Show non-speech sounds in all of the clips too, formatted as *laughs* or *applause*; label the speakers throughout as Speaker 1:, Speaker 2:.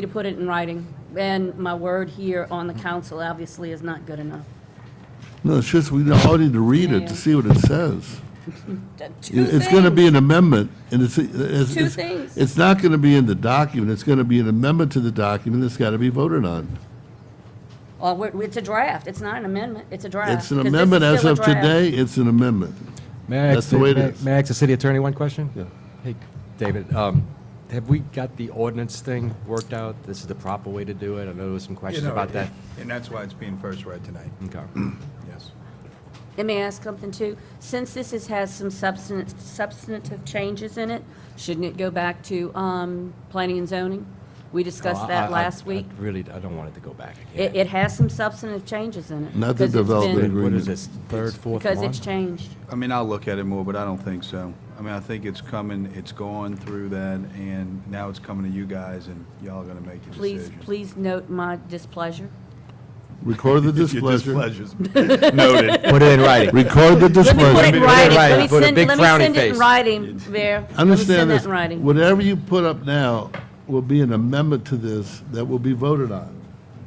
Speaker 1: to put it in writing, and my word here on the council obviously is not good enough.
Speaker 2: No, it's just, we all need to read it
Speaker 1: Yeah.
Speaker 2: to see what it says.
Speaker 1: Two
Speaker 2: It- It's going to
Speaker 1: things.
Speaker 2: be an amendment, and it's, it's,
Speaker 1: Two
Speaker 2: it's-
Speaker 1: things.
Speaker 2: it's not going to be in the document, it's going to be an amendment to the document that's got to be voted on.
Speaker 1: Well, we're- it's a draft, it's not an amendment, it's a draft.
Speaker 2: It's an
Speaker 1: 'cause this is
Speaker 2: amendment as
Speaker 1: still a
Speaker 2: of
Speaker 1: draft.
Speaker 2: today, it's an amendment.
Speaker 3: May I
Speaker 2: That's
Speaker 3: ask
Speaker 2: the way it
Speaker 3: may-
Speaker 2: is.
Speaker 3: May I ask the city attorney one question?
Speaker 2: Yeah.
Speaker 3: Hey, David, um, have we got the ordinance thing worked out? This is the proper way to do it? I know there was some
Speaker 4: You
Speaker 3: questions
Speaker 4: know,
Speaker 3: about that. Mm.
Speaker 4: And that's why it's being first read tonight,
Speaker 3: Okay.
Speaker 4: yes.
Speaker 1: Let me ask something too. Since this is, has some substance, substantive changes in it, shouldn't it go back to, um, planning and zoning? We
Speaker 3: No, I-
Speaker 1: discussed
Speaker 3: Oh, I- I-
Speaker 1: that last week.
Speaker 3: I Really, I don't want it to go back
Speaker 1: It,
Speaker 3: again.
Speaker 1: it has some substantive changes in it.
Speaker 2: Not the
Speaker 1: because it's been-
Speaker 2: development agreement.
Speaker 3: What is this, third, fourth
Speaker 1: Because
Speaker 3: one?
Speaker 1: it's changed.
Speaker 4: I mean, I'll look at it more, but I don't think so. I mean, I think it's coming, it's going through that, and now it's coming to you guys, and y'all are gonna make a
Speaker 1: Please,
Speaker 4: decision.
Speaker 1: please note my displeasure.
Speaker 2: Record
Speaker 4: *laughs*
Speaker 2: the
Speaker 4: Your
Speaker 2: displeasure.
Speaker 4: displeasure's
Speaker 1: *laughs*
Speaker 4: Noted.
Speaker 3: Put it in writing.
Speaker 2: Record the
Speaker 1: Let me put it
Speaker 2: displeasure.
Speaker 1: in
Speaker 3: Put it in
Speaker 1: writing.
Speaker 3: writing.
Speaker 1: Let me
Speaker 3: Put a
Speaker 1: send,
Speaker 3: big
Speaker 1: let me
Speaker 3: frowny
Speaker 1: send it in
Speaker 3: face.
Speaker 1: writing, Mayor. Let me
Speaker 2: Understand
Speaker 1: send that
Speaker 2: this,
Speaker 1: in writing.
Speaker 2: whatever you put up now will be an amendment to this that will be voted on.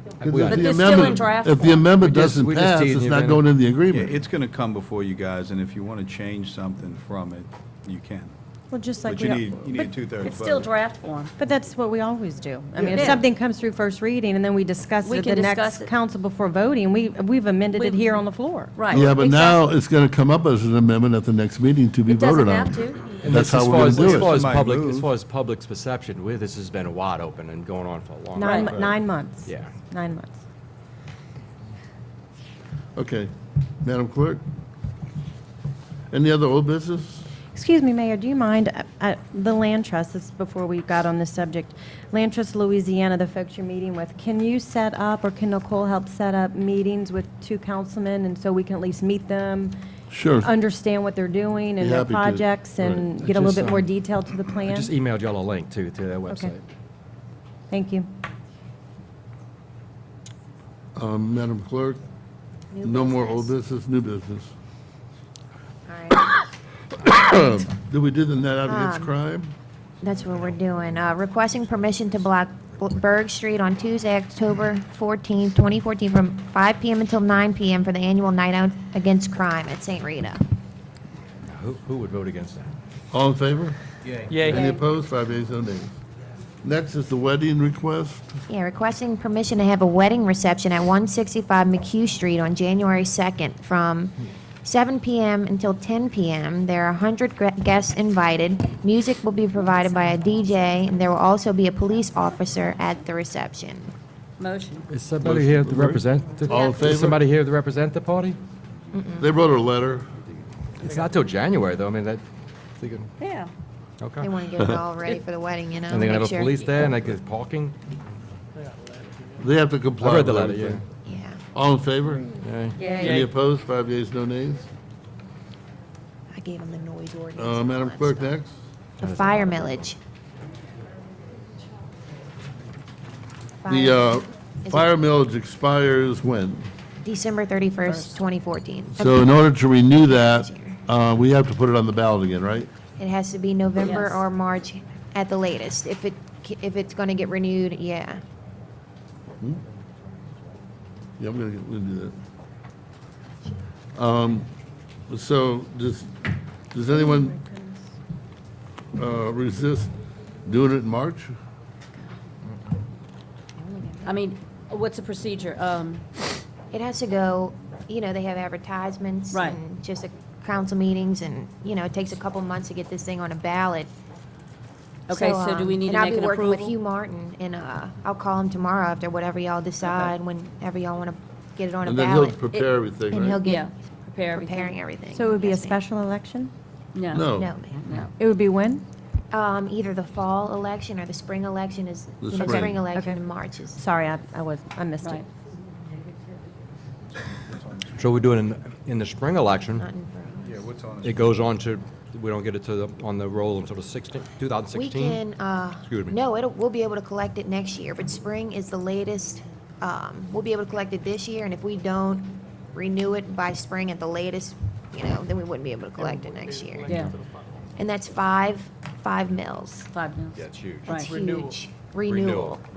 Speaker 2: 'Cause
Speaker 3: But
Speaker 2: if the
Speaker 1: this is still in
Speaker 2: amendment-
Speaker 1: draft
Speaker 2: If the
Speaker 1: form.
Speaker 2: amendment
Speaker 3: We just-
Speaker 2: doesn't
Speaker 3: we just
Speaker 2: pass,
Speaker 3: need
Speaker 2: it's
Speaker 3: the
Speaker 2: not
Speaker 3: amendment.
Speaker 2: going in the
Speaker 4: Yeah,
Speaker 2: agreement.
Speaker 4: it's gonna come before you guys, and if you wanna change something from it, you can.
Speaker 5: Well, just like
Speaker 4: But
Speaker 5: we,
Speaker 4: you
Speaker 5: al-
Speaker 4: need, you need a
Speaker 5: but-
Speaker 4: two-thirds vote.
Speaker 1: It's still draft form.
Speaker 5: but that's what we always do. I mean,
Speaker 1: It
Speaker 5: if
Speaker 1: is.
Speaker 5: something comes through first reading and then we discuss
Speaker 1: We
Speaker 5: it
Speaker 1: can
Speaker 5: at the
Speaker 1: discuss
Speaker 5: next
Speaker 1: it.
Speaker 5: council before voting, we, we've amended it
Speaker 1: We-
Speaker 5: here on the floor.
Speaker 1: Right.
Speaker 2: Yeah, but now
Speaker 1: exactly.
Speaker 2: it's going to come up as an amendment at the next meeting to be
Speaker 1: It doesn't
Speaker 2: voted on.
Speaker 1: have to.
Speaker 3: And
Speaker 2: That's
Speaker 3: this-
Speaker 2: how
Speaker 3: as
Speaker 2: we're
Speaker 3: far
Speaker 2: going
Speaker 3: as-
Speaker 2: to do
Speaker 3: As
Speaker 2: it.
Speaker 3: far as
Speaker 4: Somebody
Speaker 3: public,
Speaker 4: move.
Speaker 3: as far as public's perception, we- this has been wide open and going on for a long time.
Speaker 5: Nine,
Speaker 1: Right.
Speaker 5: nine months.
Speaker 3: Yeah.
Speaker 5: Nine months.
Speaker 2: Okay. Madam Clerk? Any other old business?
Speaker 5: Excuse me, Mayor, do you mind, uh, uh, the land trust, this is before we got on this subject, Land Trust Louisiana, the folks you're meeting with, can you set up, or can Nicole help set up meetings with two councilmen, and so we can at least meet them?
Speaker 2: Sure.
Speaker 5: Understand what they're doing and their
Speaker 2: happy to.
Speaker 5: projects, and
Speaker 2: Right.
Speaker 5: get a little
Speaker 3: Just,
Speaker 5: bit more
Speaker 3: um,
Speaker 5: detail to the
Speaker 3: I
Speaker 5: plan?
Speaker 3: just e- emailed y'all a link to, to their website.
Speaker 5: Thank you.
Speaker 2: Um, Madam Clerk? No more old business, new business. Um, Did we do the net out against
Speaker 1: Um.
Speaker 2: crime?
Speaker 6: That's what we're doing. Uh, Requesting permission to block Berg Street on Tuesday, October 14, 2014, from 5 PM until 9 PM for the annual Night Out Against Crime at St. Rita.
Speaker 3: Now, Who, who would vote against that?
Speaker 2: All in favor? Any
Speaker 7: Yay.
Speaker 2: opposed? Five ayes, no nays. Next is the wedding request.
Speaker 6: Yeah, requesting permission to have a wedding reception at 165 McHugh Street on January 2nd from 7 PM until 10 PM. There are 100 gra- guests invited. Music will be provided by a DJ, and there will also be a police officer at the reception.
Speaker 1: Motion.
Speaker 3: Is somebody here to represent? the-
Speaker 2: All in
Speaker 3: is
Speaker 2: favor?
Speaker 3: Somebody here to represent the party?
Speaker 1: Mm.
Speaker 2: They wrote a letter.
Speaker 3: It's not till January, though, I mean, that, they can-
Speaker 1: Yeah.
Speaker 3: okay.
Speaker 6: They want to get it all ready for the wedding, you know?
Speaker 3: And they're gonna
Speaker 6: make
Speaker 3: have a
Speaker 6: sure-
Speaker 3: police there, and like, it's parking?
Speaker 2: They have to
Speaker 3: I
Speaker 2: comply
Speaker 3: read
Speaker 2: with
Speaker 3: the letter,
Speaker 2: everything.
Speaker 3: yeah.
Speaker 6: Yeah.
Speaker 2: All in favor? Any
Speaker 1: Yay.
Speaker 2: opposed? Five ayes, no nays.
Speaker 6: I gave him the noise ordinance.
Speaker 2: Uh, Madam Clerk, next.
Speaker 6: The fire millage.
Speaker 2: The uh,
Speaker 6: Is it-
Speaker 2: fire millage expires when?
Speaker 6: December thirty-first, twenty fourteen.
Speaker 2: So in order to renew that, uh, we have to put it on the ballot again, right?
Speaker 6: It has to be November
Speaker 1: Yes.
Speaker 6: or March at the latest, if it, ca- if it's gonna get renewed, yeah.
Speaker 2: Yeah, I'm gonna, get- we'll do that. Um, so, does, does anyone, uh, resist doing it in March?
Speaker 1: I mean, what's the procedure? Um,
Speaker 6: It has to go, you know, they have advertisements
Speaker 1: Right.
Speaker 6: and just a council meetings and, you know, it takes a couple months to get this thing on a ballot.
Speaker 1: Okay, so do
Speaker 6: um,
Speaker 1: we need to make an
Speaker 6: And I'll be working with Hugh
Speaker 1: approval?
Speaker 6: Martin and, uh, I'll call him tomorrow after whatever y'all decide, whenever y'all wanna get it on a
Speaker 2: And then he'll
Speaker 6: ballot.
Speaker 2: prepare everything,
Speaker 6: And he'll
Speaker 2: right?
Speaker 1: Yeah,
Speaker 6: get
Speaker 1: prepare
Speaker 6: preparing
Speaker 1: everything.
Speaker 6: everything.
Speaker 5: So it would be a
Speaker 6: Yes, ma'am.
Speaker 5: special election?
Speaker 2: No.
Speaker 6: No, ma'am.
Speaker 1: No.
Speaker 5: It would be when?
Speaker 6: Um, either the fall election or the spring election is,
Speaker 2: The
Speaker 6: you know,
Speaker 2: spring.
Speaker 6: spring election
Speaker 5: Okay.
Speaker 6: in March is.
Speaker 5: Sorry, I, I was, I missed it.
Speaker 1: Right.
Speaker 3: So we do it in, in the spring election,
Speaker 4: Yeah, what's on it?
Speaker 3: it goes on to, we don't get it to the, on the roll until the sixteen, two thousand
Speaker 6: We
Speaker 3: sixteen?
Speaker 6: can, uh,
Speaker 3: Excuse me.
Speaker 6: no, it'll, we'll be able to collect it next year, but spring is the latest. Um, we'll be able to collect it this year, and if we don't renew it by spring at the latest, you know, then we wouldn't be able to collect it next year.
Speaker 1: Yeah,
Speaker 6: And that's five, five mills.
Speaker 1: five minutes.
Speaker 3: That's huge.
Speaker 1: Right.
Speaker 6: It's huge.
Speaker 3: Renewal.
Speaker 6: Renewal.